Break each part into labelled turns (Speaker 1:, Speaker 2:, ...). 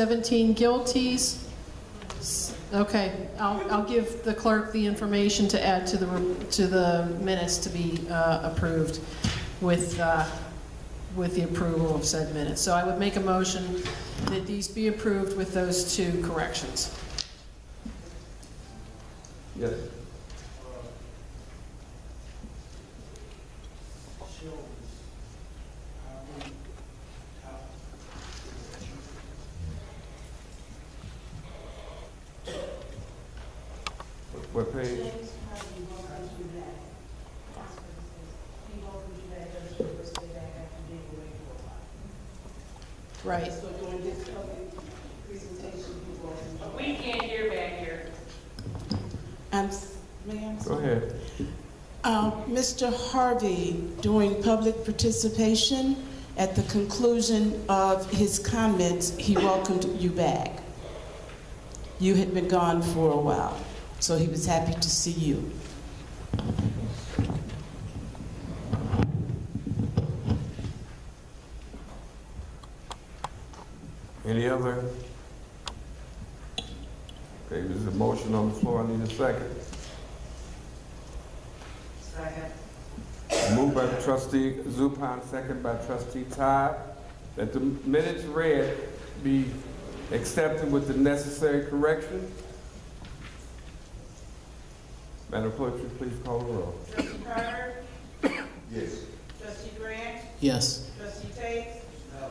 Speaker 1: 17 guilties. S- Okay, I'll, I'll give the clerk the information to add to the, re- to the minutes to be uh, approved with, uh, with the approval of said minutes. So I would make a motion that these be approved with those two corrections.
Speaker 2: Yes. What page?
Speaker 1: Right.
Speaker 3: We can't hear back here.
Speaker 4: I'm, s- may I?
Speaker 2: Go ahead.
Speaker 4: Uh, Mr. Harvey, during public participation, at the conclusion of his comments, he welcomed you back. You had been gone for a while, so he was happy to see you.
Speaker 2: Any other? Okay, there's a motion on the floor, I need a second. Second. Moved by trustee Zupan, second by trustee Todd, that the minutes read be accepted with the necessary correction. Madam Clerk, would you please call the roll.
Speaker 3: Trustee Carter?
Speaker 2: Yes.
Speaker 3: Trustee Grant?
Speaker 1: Yes.
Speaker 3: Trustee Tate? No.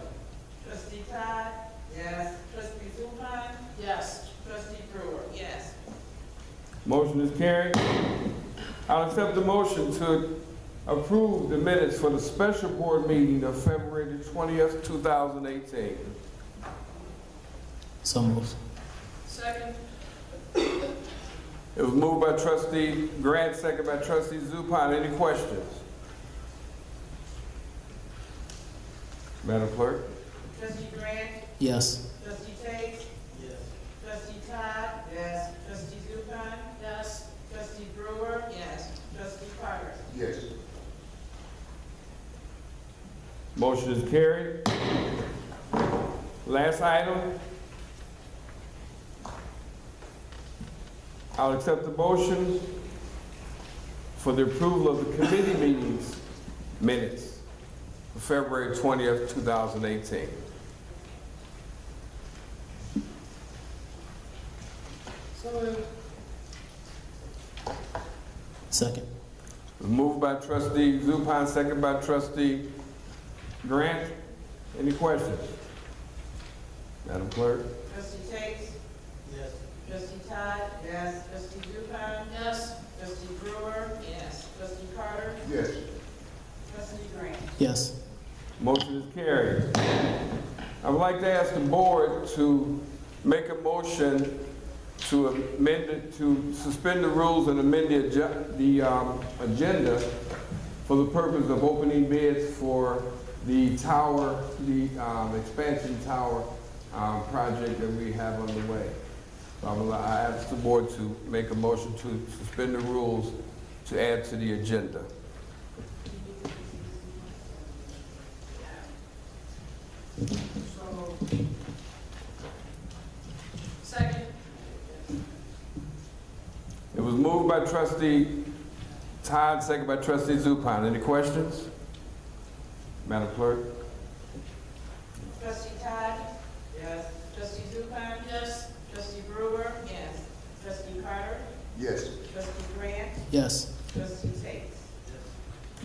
Speaker 3: Trustee Todd? Yes. Trustee Zupan?
Speaker 1: Yes.
Speaker 3: Trustee Brewer? Yes.
Speaker 2: Motion is carried. I'll accept the motion to approve the minutes for the special board meeting of February the 20th, 2018.
Speaker 5: So moved.
Speaker 1: Second.
Speaker 2: It was moved by trustee Grant, second by trustee Zupan. Any questions? Madam Clerk?
Speaker 3: Trustee Grant?
Speaker 5: Yes.
Speaker 3: Trustee Tate? Yes. Trustee Todd? Yes. Trustee Zupan?
Speaker 1: Yes.
Speaker 3: Trustee Brewer? Yes. Trustee Carter?
Speaker 2: Yes. Motion is carried. Last item. I'll accept the motion for the approval of the committee meetings minutes for February 20th, 2018.
Speaker 1: So moved.
Speaker 5: Second.
Speaker 2: Moved by trustee Zupan, second by trustee Grant. Any questions? Madam Clerk?
Speaker 3: Trustee Tate? Yes. Trustee Todd? Yes. Trustee Zupan?
Speaker 1: Yes.
Speaker 3: Trustee Brewer? Yes. Trustee Carter?
Speaker 2: Yes.
Speaker 3: Trustee Grant?
Speaker 5: Yes.
Speaker 2: Motion is carried. I would like to ask the board to make a motion to amend it, to suspend the rules and amend the, agen- the um, agenda for the purpose of opening bids for the tower, the um, expansion tower um, project that we have underway. So I would li- I ask the board to make a motion to suspend the rules to add to the agenda.
Speaker 1: Second.
Speaker 2: It was moved by trustee Todd, second by trustee Zupan. Any questions? Madam Clerk?
Speaker 3: Trustee Todd? Yes. Trustee Zupan?
Speaker 1: Yes.
Speaker 3: Trustee Brewer? Yes. Trustee Carter?
Speaker 2: Yes.
Speaker 3: Trustee Grant?
Speaker 5: Yes.
Speaker 3: Trustee Tate?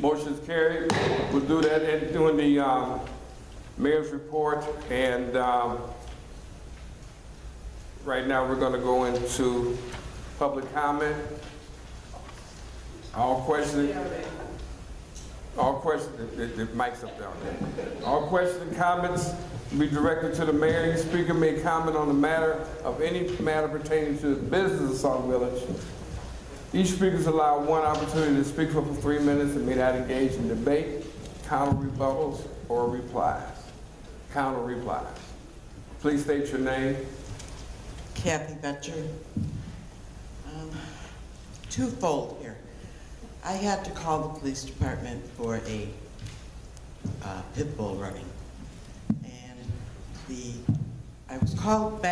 Speaker 2: Motion is carried. We'll do that in- during the um, mayor's report, and um, right now, we're going to go into public comment. All questions, all questions, the- the the mic's up down there. All questions and comments be directed to the mayor. Each speaker may comment on the matter of any matter pertaining to the business of Sauk Village. Each speaker is allowed one opportunity to speak for three minutes and may not engage in debate, counter rebuttals, or replies. Counter replies. Please state your name.
Speaker 6: Kathy Betcher. Um, Twofold here. I had to call the police department for a uh, pit bull running. And the I was called back.